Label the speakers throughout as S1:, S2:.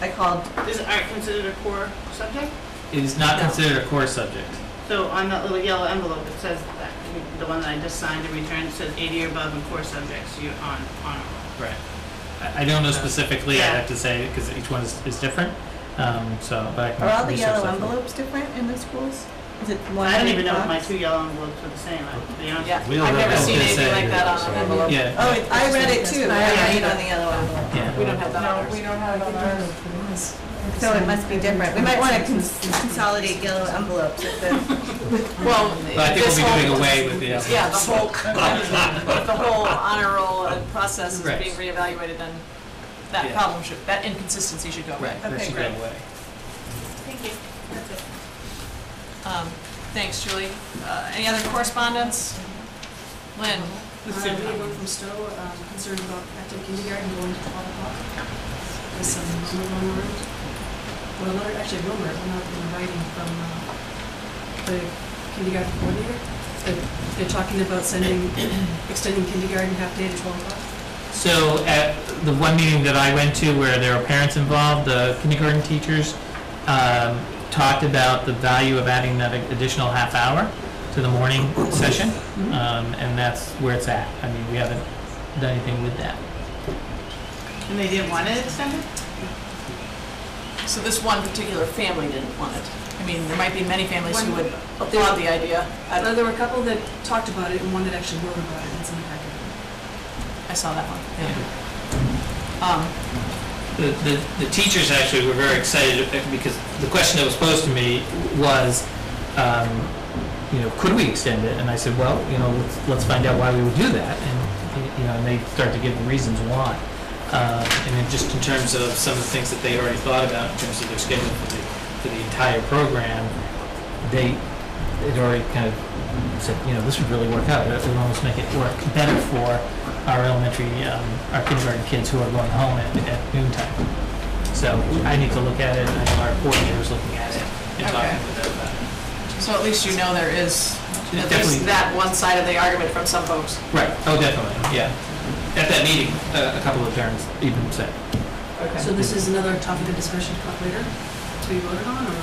S1: I called,
S2: Is art considered a core subject?
S3: It is not considered a core subject.
S2: So on that little yellow envelope, it says that, the one that I just signed and returned, it says 80 or above in core subjects, you're on, on.
S3: Right. I, I don't know specifically, I'd
S2: Yeah.
S3: have to say, because each one is, is different, um, so, but I can.
S1: are all the
S3: research
S1: yellow
S3: that for you.
S1: envelopes different in the schools? Is it one?
S2: I don't
S1: big
S2: even know if my
S1: box?
S2: two yellow envelopes are the same, I- to be honest.
S4: Yeah,
S3: We'll
S4: I've never
S3: have
S4: seen
S3: to
S4: anything
S3: say-
S4: like that on an envelope.
S3: Yeah.
S1: Oh, it- I read it too.
S4: I
S1: I
S4: read
S1: read
S4: it.
S1: it on the yellow envelope.
S3: Yeah.
S4: We don't have that on
S5: No, we
S4: ours.
S5: don't have it on ours.
S1: So it must be different. We might want to consolidate yellow envelopes if the,
S4: Well,
S3: But I think
S4: this
S3: we'll be
S4: whole-
S3: doing away with the,
S4: Yeah, the whole, the whole honor roll and process is
S3: Right.
S4: being reevaluated, then that
S3: Yeah.
S4: problem should, that inconsistency should go away.
S3: right, that
S1: Okay,
S3: should go
S1: great.
S3: away.
S2: Thank you. That's it.
S4: Um, Thanks, Julie. Uh, Any other correspondence? Lynn?
S2: Let's
S6: Uh,
S2: see.
S6: we have one from Stowe, um, concerned about active kindergarten going to twelve o'clock. There's some rumor, well, not actually rumor, we're not in writing from, uh, the kindergarten coordinator. But they're talking about sending, extending kindergarten half day to twelve o'clock.
S3: So at the one meeting that I went to where there were parents involved, the kindergarten teachers um, talked about the value of adding that additional half hour to the morning session,
S4: Mm-hmm.
S3: um, and that's where it's at. I mean, we haven't done anything with that.
S2: And they didn't want it extended?
S4: So this one particular family didn't want it. I mean, there might be many families who
S6: One-
S4: would applaud the idea.
S6: Uh,
S4: I
S6: there were a couple that talked about it and one that actually wrote about it, it's in the packet.
S4: I saw that one, yeah. Um,
S3: The, the, the teachers actually were very excited because the question that was posed to me was, um, you know, could we extend it? And I said, well, you know, let's, let's find out why we would do that. And, you know, and they start to give the reasons why. Uh, and then just in terms of some of the things that they already thought about in terms of their schedule for the, for the entire program, they, they'd already kind of said, you know, this would really work out. It would almost make it work better for our elementary, um, our kindergarten kids who are going home at, at noontime. So I need to look at it, and I know our coordinator's looking at it and
S4: Okay.
S3: talking with them about it.
S4: So at least you know there is,
S3: Yeah,
S4: at
S3: definitely.
S4: least that one side of the argument from some folks.
S3: Right, oh, definitely, yeah. At that meeting, uh, a couple of parents even said,
S6: So this is another topic of discussion to come up later, to be voted on, or?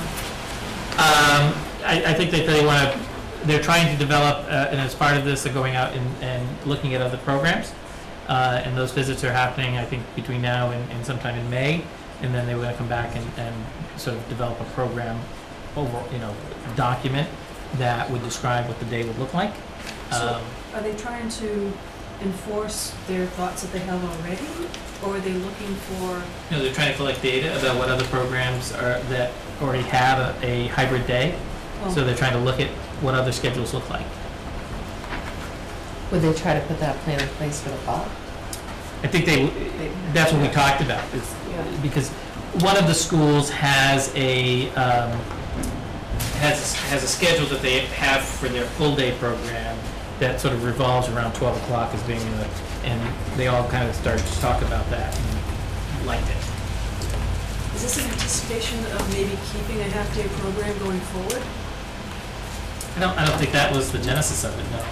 S3: Um, I, I think that they want to, they're trying to develop, uh, and as part of this, they're going out and, and looking at other programs. Uh, and those visits are happening, I think, between now and, and sometime in May. And then they want to come back and, and sort of develop a program over, you know, document that would describe what the day would look like.
S6: So-
S3: Um,
S6: Are they trying to enforce their thoughts that they have already, or are they looking for,
S3: you know, they're trying to collect data about what other programs are, that already have a, a hybrid day. So
S6: well,
S3: they're trying to look at what other schedules look like.
S7: Would they try to put that plan in place for the fall?
S3: I think they, that's what we talked about, is, because one of the schools has a, um, has, has a schedule that they have for their full-day program that sort of revolves around twelve o'clock as being the, and they all kind of started to talk about that and liked it.
S6: is this in anticipation of maybe keeping a half-day program going forward?
S3: I don't, I don't think that was the genesis of it, no.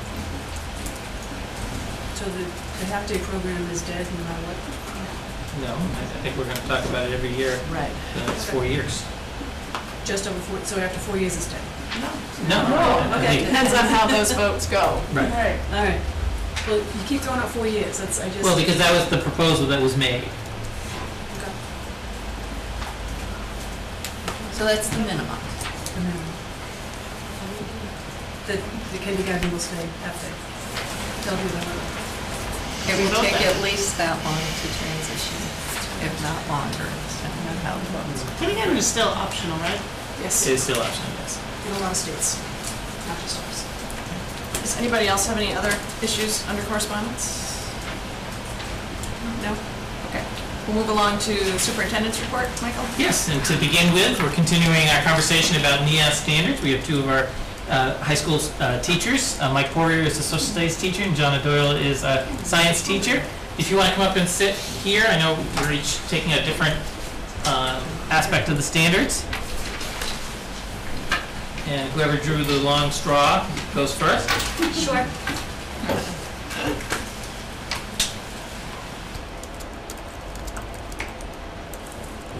S6: So the, the half-day program is dead no matter what?
S3: No, I I think we're gonna talk about it every year,
S4: Right.
S3: the next four years.
S6: Just over four, so after four years it's dead?
S3: No. I
S4: Oh, Okay,
S3: think-
S4: depends on how those votes go.
S3: Right.
S6: All right. Well, you keep throwing out four years, that's, I just.
S3: Well, because that was the proposal that was made.
S6: Okay.
S4: So that's the minimum.
S6: And then- The, the kindergarten will stay half-day. They'll do that.
S7: It will take at least that long to transition, if not longer, depending on how it goes.
S2: Kindergarten is still optional, right?
S4: Yes,
S3: It is still optional, yes.
S6: in a lot of states, not just ours.
S4: does anybody else have any other issues under correspondence? No? Okay. We'll move along to superintendent's report, Michael.
S3: Yes, and to begin with, we're continuing our conversation about NEAS standards. We have two of our uh, high school uh, teachers. Uh, Mike Poirier is a social studies teacher, and Jonna Doyle is a science teacher. If you want to come up and sit here, I know we're each taking a different um, aspect of the standards. And whoever drew the long straw goes first.
S8: Sure.